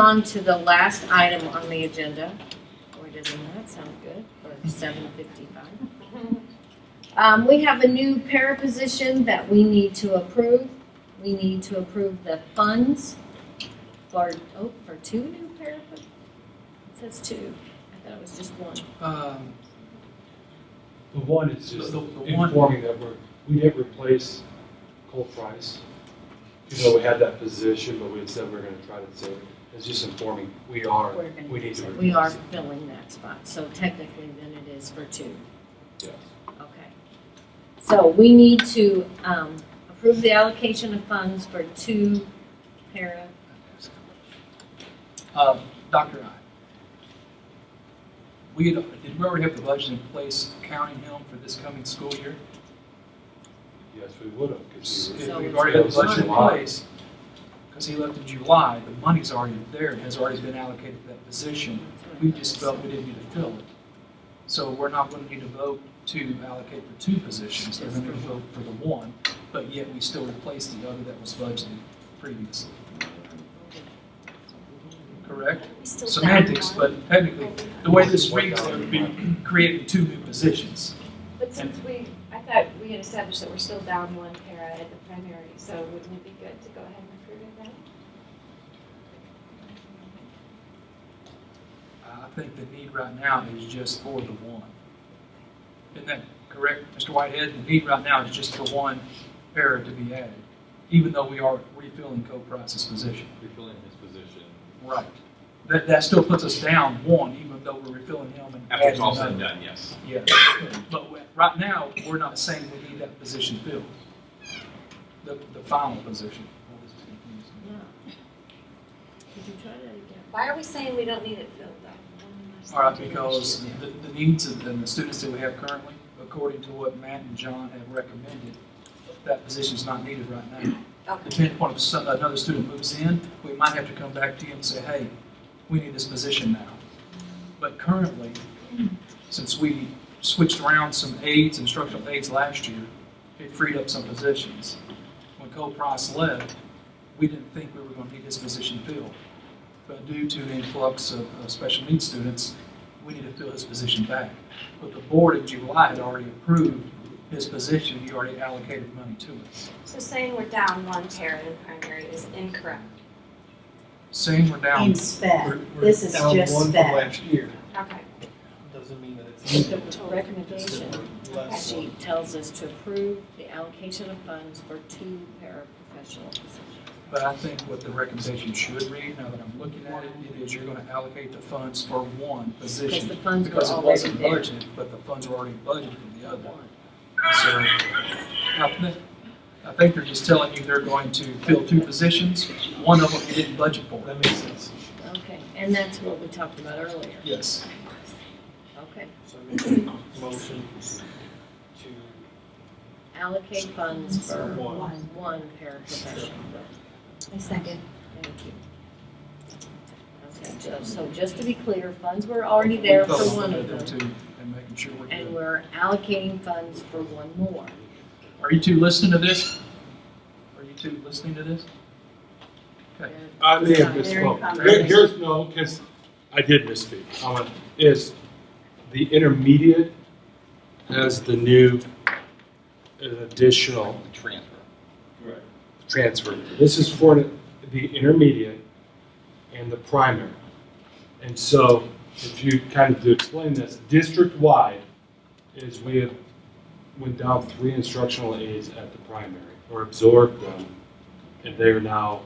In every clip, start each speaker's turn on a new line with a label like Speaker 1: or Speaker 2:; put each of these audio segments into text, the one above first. Speaker 1: on to the last item on the agenda. Or doesn't that sound good for seven fifty-five? Um, we have a new para position that we need to approve. We need to approve the funds for, oh, for two new para. po- It says two. I thought it was just one.
Speaker 2: Um,
Speaker 3: The one is just
Speaker 2: The- the one-
Speaker 3: informing that we're, we didn't replace Cole Price. Even though we had that position, but we had said we were gonna try to save it. It's just informing, we are,
Speaker 1: We're gonna
Speaker 3: we need
Speaker 1: use
Speaker 3: to
Speaker 1: it.
Speaker 3: replace
Speaker 1: We are
Speaker 3: it.
Speaker 1: filling that spot, so technically then it is for two.
Speaker 3: Yes.
Speaker 1: Okay. So we need to um, approve the allocation of funds for two para.
Speaker 2: um, Dr. I. We, had- did we already have the budget in place counting him for this coming school year?
Speaker 3: Yes, we would have, because we
Speaker 2: If
Speaker 3: were.
Speaker 2: we've already had the
Speaker 3: It was
Speaker 2: budget in
Speaker 3: July.
Speaker 2: place, because he left in July, the money's already there, it has already been allocated to that position. We just felt we didn't need to fill it. So we're not going to need to vote to allocate for two positions, they're going to vote for the one, but yet we still replace the other that was budgeted previously, correct? Semantics, but technically, the way this reads, there would be creating two new positions.
Speaker 4: But since we, I thought we had established that we're still down one para at the primary, so wouldn't it be good to go ahead and recruit it then?
Speaker 2: I think the need right now is just for the one. Isn't that correct, Mr. Whitehead? The need right now is just for one para to be added, even though we are refilling co-price's position.
Speaker 5: refilling his position.
Speaker 2: Right. That, that still puts us down one, even though we're refilling him and.
Speaker 5: After it's
Speaker 2: adding
Speaker 5: all said and
Speaker 2: another.
Speaker 5: done, yes.
Speaker 2: Yeah, but we- right now, we're not saying we need that position filled. The, the final position.
Speaker 1: Yeah. Could you try that again?
Speaker 4: Why are we saying we don't need it filled though?
Speaker 2: All right, because the, the needs of, and the students that we have currently, according to what Matt and John have recommended, that position's not needed right now.
Speaker 4: Okay,
Speaker 2: Depending upon if some- another student moves in, we might have to come back to you and say, hey, we need this position now. But currently, since we switched around some aides, instructional aides last year, it freed up some positions. When Cole Price left, we didn't think we were going to need his position filled. But due to the influx of, of special needs students, we need to fill his position back. But the board in July had already approved his position, you already allocated money to it.
Speaker 4: so saying we're down one para in primary is incorrect.
Speaker 2: Saying we're down.
Speaker 6: In spec,
Speaker 7: We're- we're
Speaker 6: this is
Speaker 7: down
Speaker 6: just
Speaker 7: one from
Speaker 6: spec.
Speaker 7: Last year,
Speaker 4: Okay,
Speaker 7: doesn't mean that it's.
Speaker 1: The recommendation
Speaker 7: Less
Speaker 1: sheet tells us to approve the allocation of funds for two paraprofessional positions.
Speaker 2: But I think what the recommendation should read, now that I'm looking at it, it is you're gonna allocate the funds for one
Speaker 1: Because the
Speaker 2: position.
Speaker 1: funds were
Speaker 2: Because it
Speaker 1: already
Speaker 2: wasn't
Speaker 1: there.
Speaker 2: budgeted, but the funds were already budgeted for the other.
Speaker 1: One.
Speaker 2: So I think, I think they're just telling you they're going to fill two positions, one of them you didn't budget for.
Speaker 7: That makes sense.
Speaker 1: Okay, and that's what we talked about earlier.
Speaker 2: Yes.
Speaker 1: Okay.
Speaker 7: So I make a motion to.
Speaker 1: Allocate funds for
Speaker 7: One.
Speaker 1: one paraprofessional.
Speaker 4: I second.
Speaker 1: Thank you. Okay, so- so just to be clear, funds were already there for
Speaker 2: Focus
Speaker 1: one of
Speaker 2: the other
Speaker 1: them,
Speaker 2: two And making sure we're
Speaker 1: and
Speaker 2: good.
Speaker 1: we're allocating funds for one more.
Speaker 2: Are you two listening to this? Are you two listening to this? Okay.
Speaker 3: I may have
Speaker 1: Very
Speaker 3: misspoke.
Speaker 1: conversation.
Speaker 3: Here- Here's, no, because I did misspeak. I went, Is the intermediate as the new, an additional
Speaker 5: Transfer.
Speaker 3: transfer. This is for the intermediate and the primary. And so, if you kind of to explain this, district-wide is we have went down three instructional aides at the primary, or absorbed them, and they are now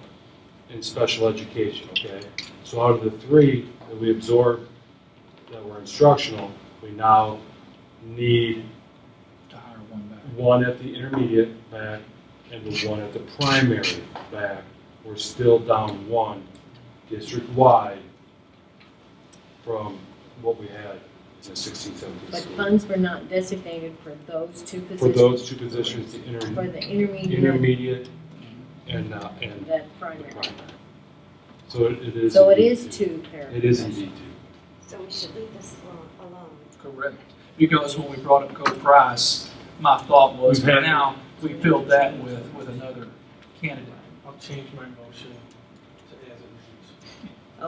Speaker 3: in special education, okay? So out of the three that we absorbed that were instructional, we now need
Speaker 2: To hire one back.
Speaker 3: one at the intermediate back and the one at the primary back. We're still down one district-wide from what we had in the 16, 17
Speaker 1: But
Speaker 3: school.
Speaker 1: funds were not designated for those two
Speaker 3: For
Speaker 1: positions,
Speaker 3: those two positions, the
Speaker 1: for
Speaker 3: inter-
Speaker 1: the intermediate
Speaker 3: intermediate and, uh,
Speaker 1: and
Speaker 3: and
Speaker 1: the
Speaker 3: the
Speaker 1: primary.
Speaker 3: primary. So it it is.
Speaker 1: So it
Speaker 3: indeed
Speaker 1: is two paraprofessionals.
Speaker 3: It is indeed two.
Speaker 4: So we should leave this alone- alone.
Speaker 2: Correct, because when we brought up Cole Price, my thought was,
Speaker 3: We've had-
Speaker 2: now, we filled that with, with another candidate.
Speaker 7: I'll change my motion